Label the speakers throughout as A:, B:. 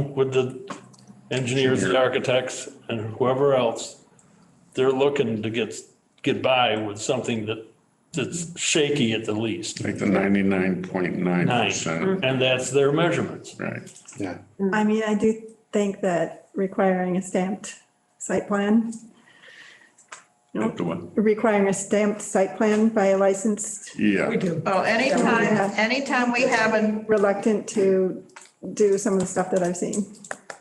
A: with the engineers, the architects, and whoever else, they're looking to get, get by with something that, that's shaky at the least.
B: Like the ninety-nine point nine
A: Nine,
B: percent,
A: and that's their measurements.
B: right?
C: Yeah.
D: I mean, I do think that requiring a stamped site plan,
B: Like the one-
D: requiring a stamped site plan by a licensed,
B: Yeah,
E: do. Well, anytime, anytime we have an,
D: reluctant to do some of the stuff that I've seen.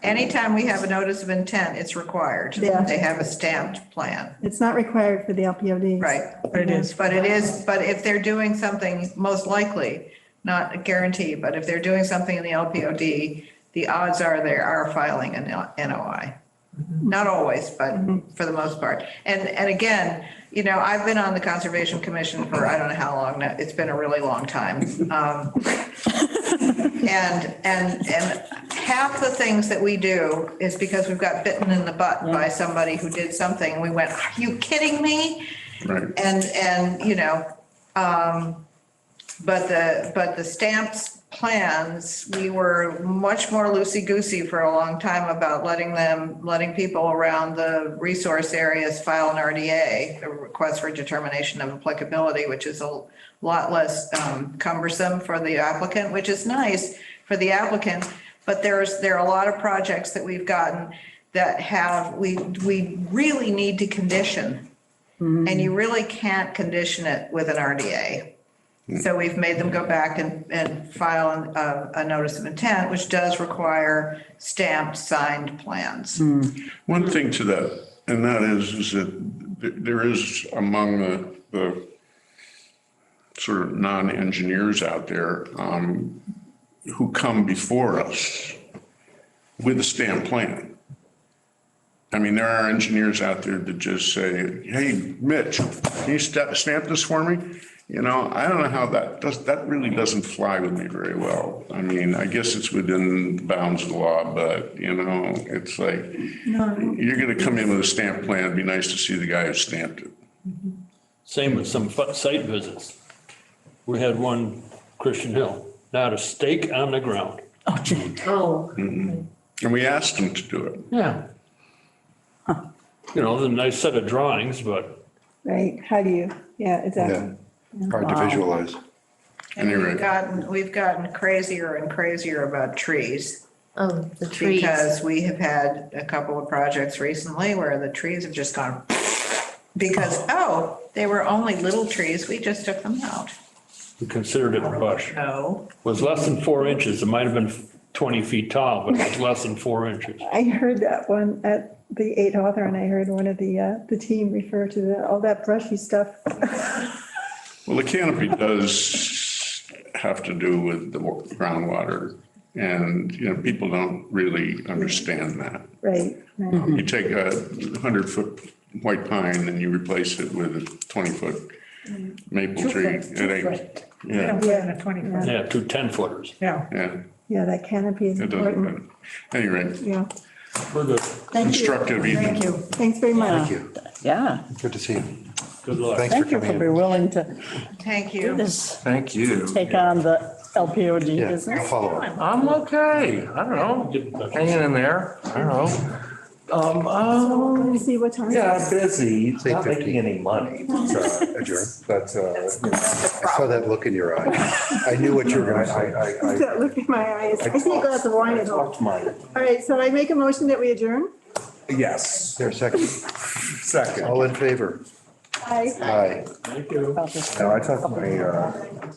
E: anytime we have a notice of intent, it's required.
D: Yeah.
E: They have a stamped plan,
D: It's not required for the LPODs.
E: right? But it is. But it is, but if they're doing something, most likely, not a guarantee, but if they're doing something in the LPOD, the odds are they are filing an NOI. Not always, but for the most part. And, and again, you know, I've been on the Conservation Commission for I don't know how long now. It's been a really long time. Um, And, and, and half the things that we do is because we've got bitten in the butt by somebody who did something. and We went, are you kidding me?
B: right.
E: And, and, you know, um, but the, but the stamps plans, we were much more loosey-goosey for a long time about letting them, letting people around the resource areas file an RDA, a request for determination of applicability, which is a lot less um, cumbersome for the applicant, which is nice for the applicant. But there's, there are a lot of projects that we've gotten that have, we, we really need to condition and you really can't condition it with an RDA. So we've made them go back and, and file an- a, a notice of intent, which does require stamped, signed plans.
B: One thing to that, and that is, is that th- there is among the, the sort of non-engineers out there, um, who come before us with a stamp plan. I mean, there are engineers out there that just say, hey, Mitch, can you stamp, stamp this for me? You know, I don't know how that does, that really doesn't fly with me very well. I mean, I guess it's within the bounds of the law, but you know, it's like, you're gonna come in with a stamp plan, it'd be nice to see the guy who stamped it.
A: Same with some fu- site visits. We had one, Christian Hill, not a stake on the ground.
F: Oh,
B: And we asked him to do it.
A: Yeah. You know, the nice set of drawings, but
D: Right, how do you, yeah,
C: Yeah.
D: exactly.
C: Hard to visualize.
E: And we've
B: Anyway.
E: gotten, we've gotten crazier and crazier about trees.
F: oh, the trees.
E: Because we have had a couple of projects recently where the trees have just gone because, oh, they were only little trees, we just took them out.
A: we considered it a bush.
E: No,
A: Was less than four inches. It might have been 20 feet tall, but it was less than four inches.
D: I heard that one at the eight author and I heard one of the, uh, the team refer to the, all that brushy stuff.
B: Well, the canopy does have to do with the wa- groundwater. And, you know, people don't really understand that.
D: Right, right.
B: You take a hundred foot white pine and you replace it with a twenty foot
D: Mm.
B: maple tree. It ain't, yeah,
D: yeah,
A: Yeah, two 10 footers.
B: yeah,
D: yeah, that canopy is
B: it doesn't,
D: important,
B: matter. anyway,
D: yeah.
A: We're good.
D: Thank you.
B: Constructive evening.
D: Thank you, thanks very much.
C: Thank you.
G: Yeah,
C: Good to see you.
A: Good luck.
C: Thanks for
G: thank you
C: coming
G: for
C: in.
G: being willing to
E: thank you.
G: do this,
H: Thank you.
G: take on the LPOD
C: Yeah,
G: business.
C: I'll follow up.
H: I'm okay. I don't
A: Get in
H: know.
A: touch.
H: Hanging in there. I don't know. Um, oh,
D: Let me see what time. it
H: yeah,
D: is.
H: I'm busy.
C: Say
H: Not
C: 50.
H: making any money.
C: Uh, Adjourn, but uh, I saw that look in your eye. I knew what you were gonna, I, I, I.
D: Don't Look at my eyes. I see a glass of wine
H: I
D: at home.
H: talked my,
D: All right, so I make a motion that we adjourn.
H: yes,
C: There, second,
H: second.
C: Oh, all in favor?
D: Aye.
C: Aye.
A: Thank you.
G: About this.
C: No, I talked my, uh,